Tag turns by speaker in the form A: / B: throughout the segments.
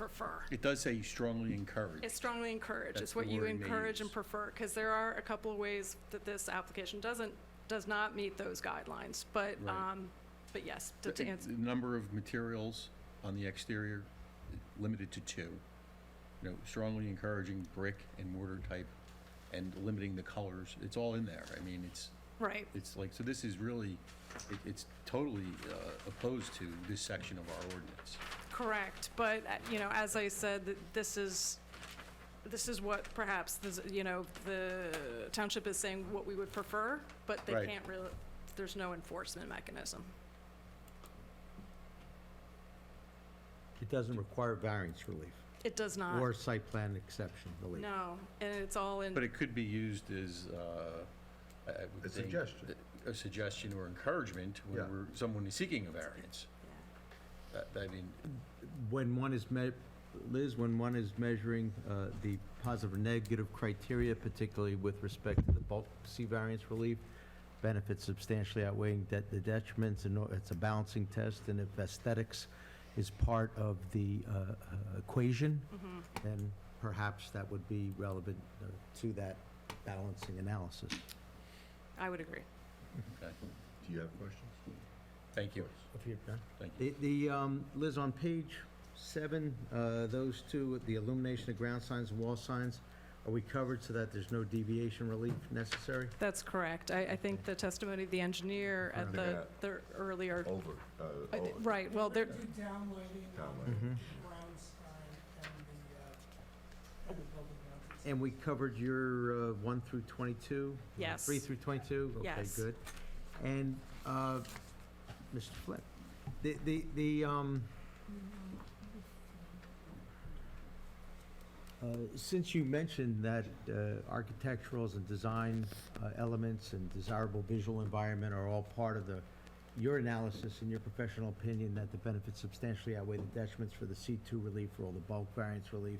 A: prefer.
B: It does say strongly encourage.
A: It's strongly encourage,
B: That's
A: it's
B: the
A: what you
B: wording they
A: encourage and
B: use.
A: prefer, because there are a couple of ways that this application doesn't, does not meet those guidelines, but,
B: Right.
A: um, but yes, to-
B: The
A: to answer,
B: the number of materials on the exterior, limited to two. You know, strongly encouraging brick and mortar type and limiting the colors. It's all in there. I mean, it's,
A: right,
B: it's like, so this is really, it- it's totally uh, opposed to this section of our ordinance.
A: correct, but, uh, you know, as I said, th- this is, this is what perhaps, this- you know, the township is saying what we would prefer, but they
B: Right.
A: can't really, there's no enforcement mechanism.
C: It doesn't require variance relief
A: It does not,
C: or site plan exception relief.
A: Uh, no, and it's all in.
B: But it could be used as, uh, I I would
D: A
B: think,
D: suggestion.
B: A suggestion or encouragement
D: Yeah.
B: when we're, someone is seeking a variance.
A: yeah.
B: That- I mean,
C: When one is me, Liz, when one is measuring uh, the positive or negative criteria, particularly with respect to the bulk C variance relief, benefits substantially outweighing det- the detriments, and it's a balancing test, and if aesthetics is part of the uh, uh, equation,
A: mm-hmm,
C: then perhaps that would be relevant uh, to that balancing analysis.
A: I would agree.
B: okay.
D: Do you have questions?
B: thank you,
C: If you're done.
B: thank you.
C: The- The, um, Liz, on page seven, uh, those two, the illumination of ground signs and wall signs, are we covered so that there's no deviation relief necessary?
A: That's correct. I, I think the testimony of the engineer at
D: Kinda
A: the, the earlier,
D: Over, uh,
A: I thi-
D: over.
A: right, well, there,
E: The downlighting
D: Down
E: on
D: lighting.
E: the ground sign and the, uh, and the building outside.
C: And we covered your uh, one through 22?
A: Yes.
C: Three through 22?
A: Yes.
C: Okay, good. And, uh, Mr. Flip, the, the, the, um, uh, since you mentioned that uh, architecturals and design uh, elements and desirable visual environment are all part of the, your analysis and your professional opinion that the benefits substantially outweigh the detriments for the C2 relief, for all the bulk variance relief,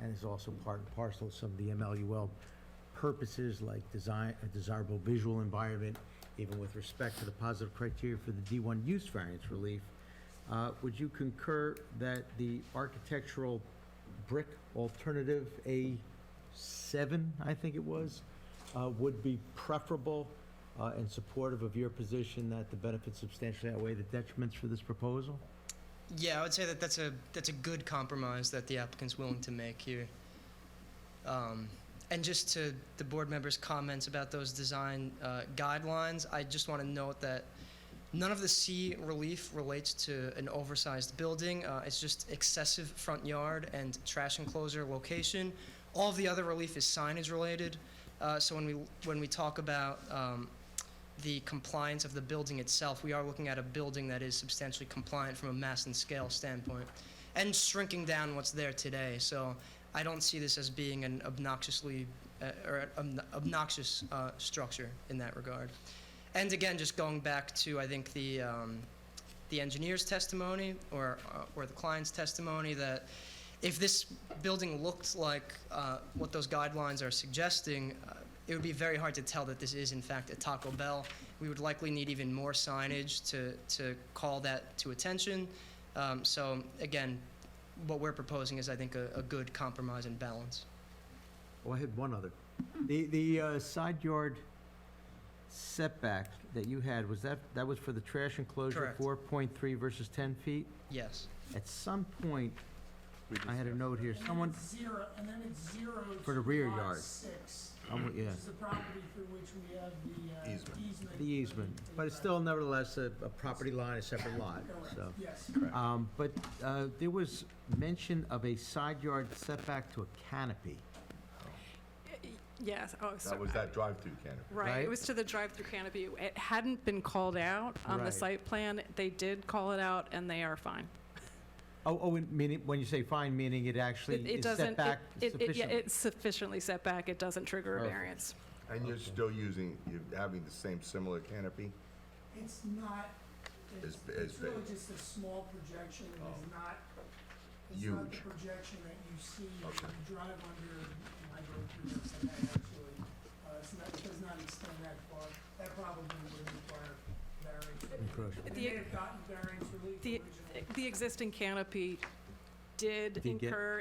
C: and is also part and parcel of some of the MLUL purposes like design, a desirable visual environment, even with respect to the positive criteria for the D1 use variance relief, uh, would you concur that the architectural brick alternative A7, I think it was, uh, would be preferable uh, and supportive of your position that the benefits substantially outweigh the detriments for this proposal?
F: Yeah, I would say that that's a that's a good compromise that the applicant's willing to make here. Um, and just to the board members' comments about those design uh, guidelines, I just want to note that none of the C relief relates to an oversized building. Uh, it's just excessive front yard and trash enclosure location. All of the other relief is signage related. Uh, so when we when we talk about um, the compliance of the building itself. We are looking at a building that is substantially compliant from a mass and scale standpoint and shrinking down what's there today. So I don't see this as being an obnoxiously uh, or an obnoxious uh, structure in that regard. And again, just going back to I think the um, the engineer's testimony or uh, or the client's testimony that if this building looked like uh, what those guidelines are suggesting, uh, it would be very hard to tell that this is in fact a Taco Bell. We would likely need even more signage to to call that to attention. Um, so again, what we're proposing is I think a, a good compromise and balance.
C: Oh, I had one other. The, the uh, side yard setback that you had, was that, that was for the trash enclosure,
F: Correct.
C: four point three versus ten feet?
F: Yes.
C: At some point,
B: We
C: I had a note here,
E: And then
C: someone,
E: it's Zero, and then it's zero.
C: For the
E: to
C: rear
E: lot
C: yard.
E: Six,
C: um,
E: which
C: yeah,
E: is the property through which we have the uh,
D: Easement.
E: easement.
C: the easement, but it's still nevertheless a, a property line, a separate lot, so.
E: Correct, yes.
C: Um, but, uh, there was mention of a side yard setback to a canopy.
A: yes, oh,
D: That
A: sorry.
D: was that drive-through canopy.
A: Right, it
C: right?
A: was to the drive-through canopy. It hadn't been called out on the
C: Right.
A: site plan. They did call it out and they are fine.
C: Oh, oh, and meaning, when you say fine, meaning it actually
A: It- It
C: is
A: doesn't, it-
C: set back
A: it,
C: sufficiently?
A: it, yeah, it's sufficiently set back. It doesn't trigger a
C: Perfect.
A: variance.
D: And you're still using, you're having the same similar canopy?
E: It's not, it's,
D: It's- it's
E: it's really
D: big.
E: just a small projection, it's not, it's not the
D: Huge.
E: projection that you see when
D: Okay.
E: you drive under, and I drove through this, and I actually, uh, it's not, it does not extend that far. That probably would require variance.
C: Encroachment.
E: They may have gotten variance relief
A: The,
E: originally.
A: the existing canopy did
C: Did get-
A: incur